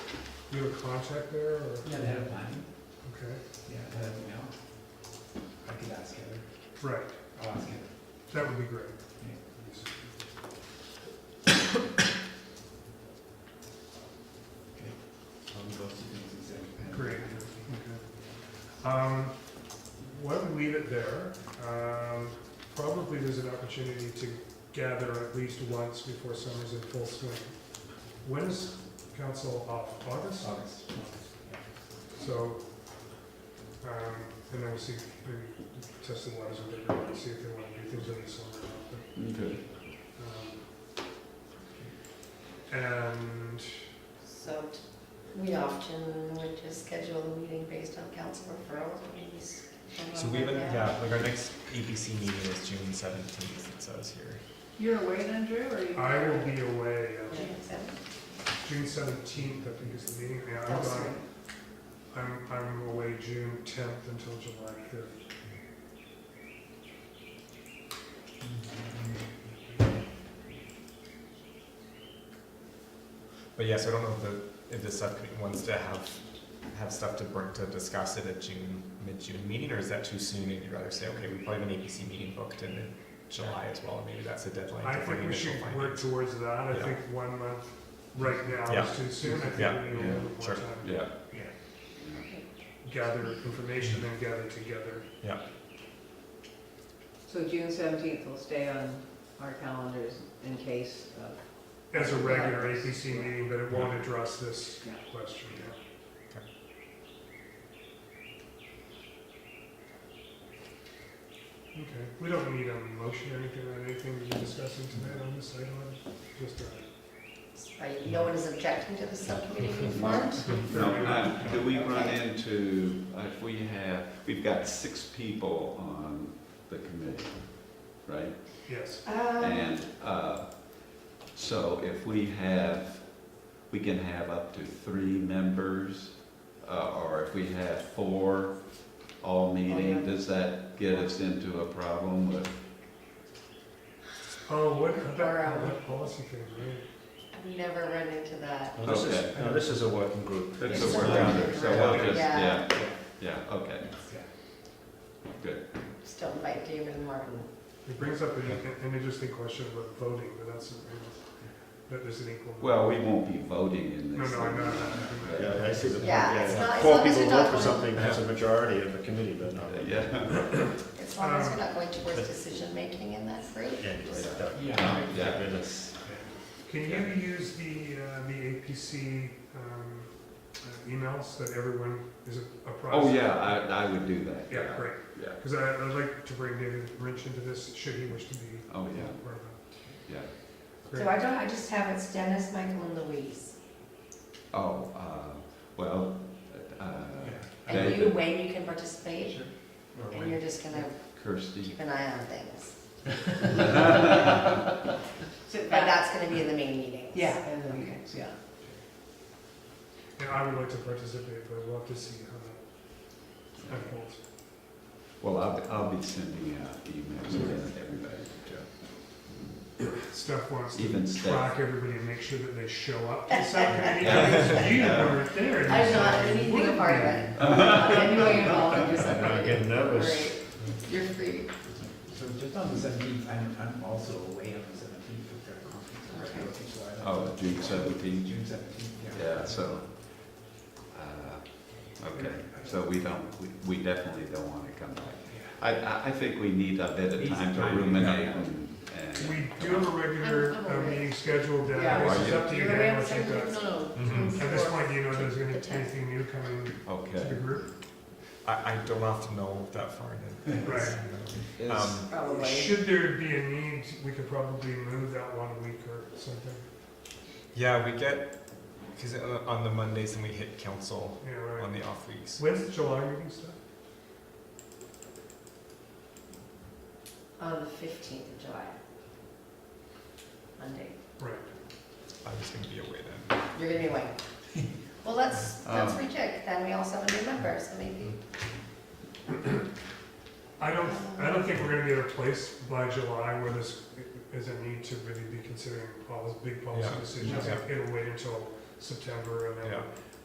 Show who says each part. Speaker 1: You have a contact there, or,
Speaker 2: Yeah, the head of planning,
Speaker 1: okay,
Speaker 2: yeah, the head of email. I could ask Heather,
Speaker 1: right,
Speaker 2: I'll ask Heather.
Speaker 1: that would be great.
Speaker 2: Yeah. Okay. I'll do those two things instead.
Speaker 1: Great. Okay. Um, why don't we leave it there? Um, probably there's an opportunity to gather at least once before summer's in full swing. When is council off? August?
Speaker 2: August. Yeah.
Speaker 1: So, um, and then we'll see, maybe test the waters a bit, and see if they want to do things in the summer. or not, but,
Speaker 3: Okay.
Speaker 1: um, And,
Speaker 4: So t- we often would just schedule a meeting based on council referrals, or maybe. s-
Speaker 3: So we haven't,
Speaker 4: Yeah.
Speaker 3: yeah, like our next APC meeting is June seventeenth, it says here.
Speaker 5: You're away then, Drew, or you?
Speaker 1: I will be away,
Speaker 4: Yeah,
Speaker 1: uh,
Speaker 4: exactly.
Speaker 1: June seventeenth, I think is the meeting, yeah, I'm
Speaker 4: That's
Speaker 1: gone.
Speaker 4: right.
Speaker 1: I'm, I'm away June tenth until July fifth.
Speaker 3: But yeah, so I don't know if the, if the subcommittee wants to have, have stuff to bring, to discuss at a June, mid-June meeting, or is that too soon? And you'd rather say, okay, we probably have an APC meeting booked in July as well, and maybe that's a deadline
Speaker 1: I
Speaker 3: to bring
Speaker 1: think we
Speaker 3: initial
Speaker 1: should work
Speaker 3: findings.
Speaker 1: towards that, I
Speaker 3: Yeah.
Speaker 1: think one month right now
Speaker 3: Yeah.
Speaker 1: is too soon, I think
Speaker 3: Yeah.
Speaker 1: we need a little bit more
Speaker 3: Sure.
Speaker 1: time.
Speaker 6: Yeah,
Speaker 1: Gather information and gather together.
Speaker 5: So June seventeenth will stay on our calendars in case of.
Speaker 1: As a regular
Speaker 5: Right.
Speaker 1: APC meeting, but it won't address this
Speaker 5: Yeah.
Speaker 1: question, yeah. Okay, we don't need a motion or anything on anything we're discussing tonight on this item, just uh, a.
Speaker 4: Right, no one is objecting to the subcommittee being formed?
Speaker 6: no, uh, do we run into, uh, if we have, we've got six people on the committee, right?
Speaker 1: Yes,
Speaker 4: Um,
Speaker 6: And, uh, so if we have, we can have up to three members, uh, or if we have four all
Speaker 4: Oh,
Speaker 6: meeting, does that get us into a problem with,
Speaker 1: oh, what, that,
Speaker 4: Around.
Speaker 1: that policy thing, right?
Speaker 4: I've never run into that.
Speaker 7: Well, this is,
Speaker 6: Okay.
Speaker 7: no, this is a working group.
Speaker 6: that's
Speaker 4: It's
Speaker 6: a work,
Speaker 4: not-
Speaker 6: so we'll just,
Speaker 4: Yeah.
Speaker 6: yeah, yeah, okay, good.
Speaker 4: Still invite David and Martin.
Speaker 1: It brings up an, an interesting question about voting, but that's, that there's an equal.
Speaker 6: Well, we won't be voting in
Speaker 1: No,
Speaker 6: this.
Speaker 1: no, I'm not.
Speaker 7: Yeah, I see the point,
Speaker 4: Yeah,
Speaker 7: yeah,
Speaker 4: it's
Speaker 7: yeah.
Speaker 4: not- it's
Speaker 7: Four
Speaker 4: not
Speaker 7: people vote
Speaker 4: Mr.
Speaker 7: for
Speaker 4: Dublin.
Speaker 7: something, that's a majority of the committee, but not.
Speaker 6: Yeah.
Speaker 4: As long as we're not going
Speaker 1: Um,
Speaker 4: towards decision-making in that group.
Speaker 7: Yeah, right, that-
Speaker 2: Yeah.
Speaker 6: Yeah.
Speaker 7: Get rid of-
Speaker 1: Can you use the, uh, the APC, um, uh, emails that everyone is apprised?
Speaker 6: Oh, yeah, I, I would do that.
Speaker 1: Yeah, great,
Speaker 6: Yeah,
Speaker 1: because I, I'd like to bring David Rynch into this, should he wish to be.
Speaker 6: oh, yeah,
Speaker 1: part of
Speaker 6: yeah.
Speaker 1: it.
Speaker 4: So I don't, I just have it's Dennis, Michael, and Louise.
Speaker 6: Oh, uh, well, uh,
Speaker 4: And you,
Speaker 6: David.
Speaker 4: Wayne, you can participate, and you're just gonna
Speaker 6: Kirsty,
Speaker 4: keep an eye on things. But that's gonna be in the main meeting.
Speaker 5: Yeah, and the meetings, yeah.
Speaker 1: And I would like to participate, but we'll have to see how that unfolds.
Speaker 6: well, I'll, I'll be sending out emails to everybody.
Speaker 1: Steph wants to
Speaker 6: Even Steph.
Speaker 1: track everybody and make sure that they show up to subcommittee meetings. You weren't there. and
Speaker 4: I'm
Speaker 1: you
Speaker 4: not,
Speaker 1: said you
Speaker 4: anything a
Speaker 1: wouldn't
Speaker 4: part of
Speaker 1: be.
Speaker 4: it. I'm not anyway involved in your
Speaker 7: I'm not getting nervous.
Speaker 4: Right. You're free.
Speaker 2: So just on the seventeenth, I'm, I'm also away on the seventeenth, I've got a conference. I'm
Speaker 4: Okay.
Speaker 2: going to Florida.
Speaker 6: Oh, June seventeenth,
Speaker 2: June seventeenth, yeah.
Speaker 6: yeah, so, uh, okay, so we don't, we- we definitely don't want to come back.
Speaker 2: Yeah.
Speaker 6: I, I, I think we need a bit of
Speaker 2: Need some
Speaker 6: time to
Speaker 2: time, yeah.
Speaker 6: ruminate and. and-
Speaker 1: We do have a regular
Speaker 4: I'm- I'm
Speaker 1: uh,
Speaker 4: aware.
Speaker 1: meeting scheduled down,
Speaker 5: Yeah.
Speaker 1: there.
Speaker 6: Are
Speaker 1: it's
Speaker 6: you?
Speaker 1: up to you
Speaker 4: You're
Speaker 1: now,
Speaker 4: around
Speaker 1: what you've
Speaker 4: something?
Speaker 1: got.
Speaker 4: No, no.
Speaker 3: Mhm.
Speaker 4: June
Speaker 1: Mm-hmm. At this
Speaker 4: fourth.
Speaker 1: point, do you know there's gonna
Speaker 4: The
Speaker 1: be
Speaker 4: tenth.
Speaker 1: anything new coming to the
Speaker 6: Okay.
Speaker 1: group?
Speaker 3: I, I don't often know that far in advance.
Speaker 6: Is-
Speaker 3: Um,
Speaker 4: Probably.
Speaker 1: Should there be a need, we could probably move that one week or something,
Speaker 3: yeah, we get, because on the Mondays, and we hit council
Speaker 1: Yeah,
Speaker 3: on
Speaker 1: right?
Speaker 3: the off weeks.
Speaker 1: When's the July meeting stuff?
Speaker 4: On the fifteenth of July. Monday.
Speaker 1: Right.
Speaker 3: I was gonna be away then.
Speaker 4: You're gonna be away. Well, let's, let's
Speaker 6: Um.
Speaker 4: recheck, then we also have a new member, so maybe.
Speaker 1: I don't, I don't think we're gonna be at a place by July where this is a need to really be considering all those big policy
Speaker 3: Yeah.
Speaker 1: decisions.
Speaker 3: Yeah.
Speaker 1: It'll wait until September and then
Speaker 3: Yeah.